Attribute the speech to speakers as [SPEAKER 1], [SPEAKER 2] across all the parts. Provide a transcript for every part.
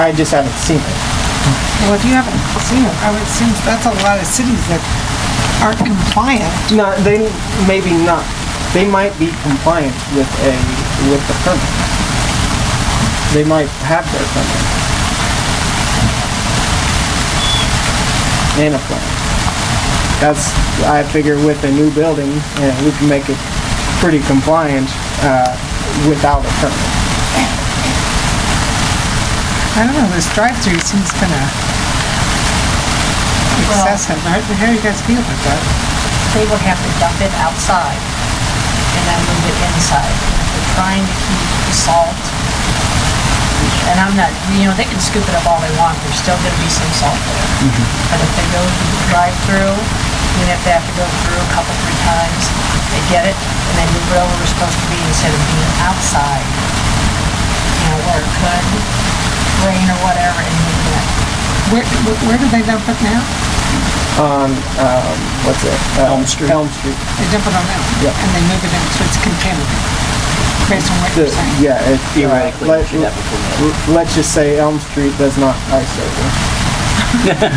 [SPEAKER 1] I just haven't seen it.
[SPEAKER 2] Well, if you haven't seen it, I would assume that's a lot of cities that aren't compliant.
[SPEAKER 1] No, they, maybe not. They might be compliant with a, with the permit. They might have their permit. And a plan. That's, I figure with a new building, yeah, we can make it pretty compliant, uh, without a permit.
[SPEAKER 2] I don't know, this drive-through seems kind of excessive. How how do you guys feel about that?
[SPEAKER 3] they would have to dump it outside and then move it inside. They're trying to keep the salt. And I'm not, you know, they can scoop it up all they want, there's still gonna be some salt there.
[SPEAKER 2] Mm-hmm.
[SPEAKER 3] But if they go through the drive-through, even if they have to go through a couple, three times, they get it and they move it over where it's supposed to be instead of being outside. You know, where it could rain or whatever and move it.
[SPEAKER 2] Where, where- where do they dump it now?
[SPEAKER 1] What's it? Elm Street. Elm Street.
[SPEAKER 2] They dump it on them?
[SPEAKER 1] Yep.
[SPEAKER 2] And they move it in, so it's contaminated, based on what
[SPEAKER 1] The-
[SPEAKER 2] you're saying?
[SPEAKER 1] Yeah, it. Theoretically, Let's just say Elm Street does not ice over.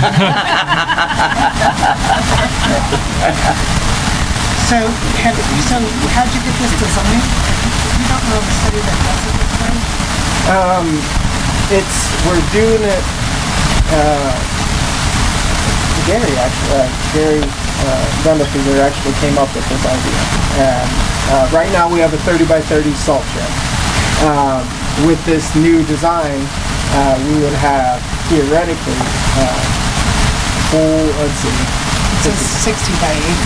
[SPEAKER 2] So, have, so how'd you get this design? You don't know of a city that does it this way?
[SPEAKER 1] It's, we're doing it, uh, Gary actually, uh, Gary, uh, Dundefinger actually came up with this idea. And, uh, right now we have a thirty by thirty salt shed. Um, with this new design, uh, we would have theoretically, uh, full, let's see.
[SPEAKER 2] It's a sixty by eighty.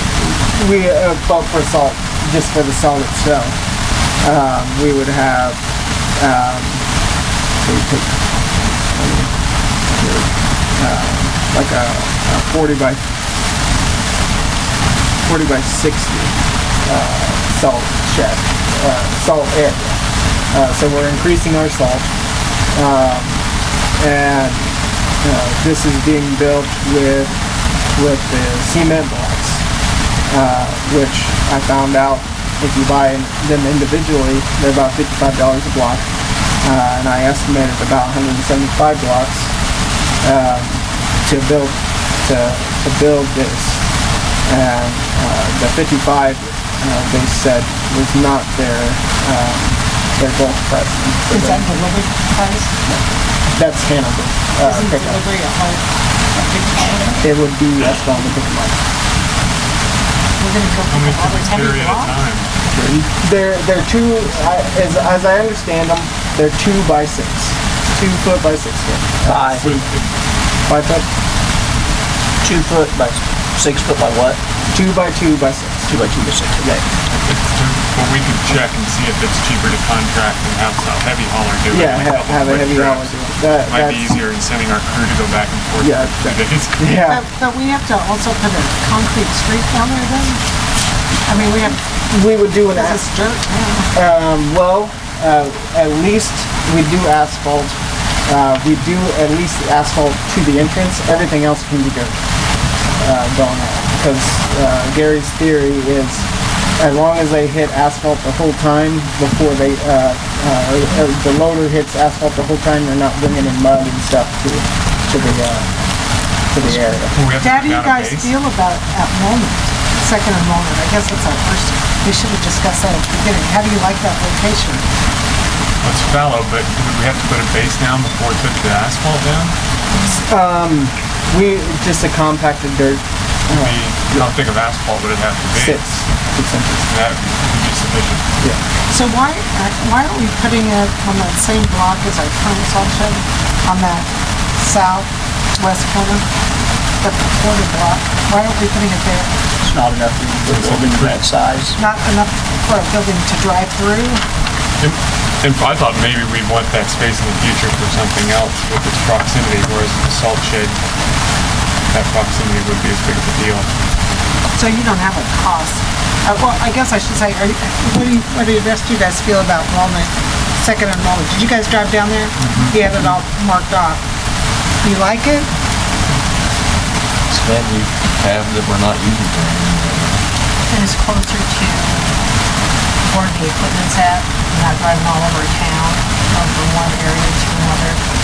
[SPEAKER 1] we uh, but for salt, just for the salt itself, um, we would have. Um, so you take, um, like a, a 40 by 40 by 60 uh, salt shed, uh, salt area. Uh, so we're increasing our salt, um, and uh, this is being built with with the cement blocks which I found out if you buy them individually, they're about fifty-five dollars a block, uh, and I estimated about one hundred and seventy-five blocks um, to build to to build this. And uh, the fifty-five, uh, they said, was not their um, their goal price.
[SPEAKER 2] Is that delivery price?
[SPEAKER 1] That's Hannibal uh,
[SPEAKER 2] Isn't
[SPEAKER 1] pickup.
[SPEAKER 2] delivery a whole, a big holiday?
[SPEAKER 1] It would be uh, Esteban to pick them up.
[SPEAKER 3] We're gonna go
[SPEAKER 4] How
[SPEAKER 3] from
[SPEAKER 4] many
[SPEAKER 3] all
[SPEAKER 4] can
[SPEAKER 3] the
[SPEAKER 4] we
[SPEAKER 3] ten
[SPEAKER 4] carry at a
[SPEAKER 3] o'clock.
[SPEAKER 4] time?
[SPEAKER 1] They're, they're two, I- as, as I understand them, they're two by six, two foot by six foot,
[SPEAKER 5] by
[SPEAKER 4] So if-
[SPEAKER 1] five foot,
[SPEAKER 5] two foot by six foot by what?
[SPEAKER 1] two by two by six.
[SPEAKER 5] Two by two by six. Okay.
[SPEAKER 4] if it's- Well, we could check and see if it's cheaper to contract and have a heavy hauler do it.
[SPEAKER 1] Yeah,
[SPEAKER 4] and
[SPEAKER 1] have,
[SPEAKER 4] couple
[SPEAKER 1] have a
[SPEAKER 4] quick
[SPEAKER 1] heavy
[SPEAKER 4] trips.
[SPEAKER 1] hour. do it. That,
[SPEAKER 4] Might be
[SPEAKER 1] that's,
[SPEAKER 4] easier than sending our crew to go back and forth
[SPEAKER 1] Yeah,
[SPEAKER 4] for two days.
[SPEAKER 2] But,
[SPEAKER 1] yeah,
[SPEAKER 2] but we have to also put a concrete street down there then? I mean, we have,
[SPEAKER 1] we would do an,
[SPEAKER 2] this
[SPEAKER 1] as-
[SPEAKER 2] is dirt now.
[SPEAKER 1] um, well, uh, at least we do asphalt. Uh, we do at least asphalt to the entrance. Everything else can be dirt, uh, going on. Because, uh, Gary's theory is as long as they hit asphalt the whole time before they, uh, uh, or- or the loader hits asphalt the whole time, they're not bringing in mud and stuff to, to the, uh, to the area.
[SPEAKER 4] Well, we have to
[SPEAKER 2] Dad, how do
[SPEAKER 4] put
[SPEAKER 2] you
[SPEAKER 4] down a
[SPEAKER 2] guys
[SPEAKER 4] base.
[SPEAKER 2] feel about at moment, second enrollment? I guess it's our first, we should have discussed that at the beginning. How do you like that location?
[SPEAKER 4] Well, It's fallow, but would we have to put a base down before we put the asphalt down?
[SPEAKER 1] We, just a compacted dirt, uh,
[SPEAKER 4] Would be- How thick of asphalt would it have to be?
[SPEAKER 1] six, six inches.
[SPEAKER 4] That would be sufficient.
[SPEAKER 2] So why, uh, why aren't we putting it on that same block as our current salt shed? On that southwest corner, the corner block? Why aren't we putting it there?
[SPEAKER 5] It's not enough room for a building of that size.
[SPEAKER 2] Not enough for a building to drive through?
[SPEAKER 4] And and I thought maybe we'd want that space in the future for something else with its proximity, whereas the salt shed, that proximity would be as big of a deal.
[SPEAKER 2] So you don't have a cost. Uh, well, I guess I should say, are you, what do you, what do the rest of you guys feel about Walnut, second and Walnut? Did you guys drive down there? He had it all marked off. You like it?
[SPEAKER 6] It's that we have that we're not using for
[SPEAKER 3] and
[SPEAKER 6] anything.
[SPEAKER 3] it's closer to where the equipment's at, not driving all over town, um, from one area to another.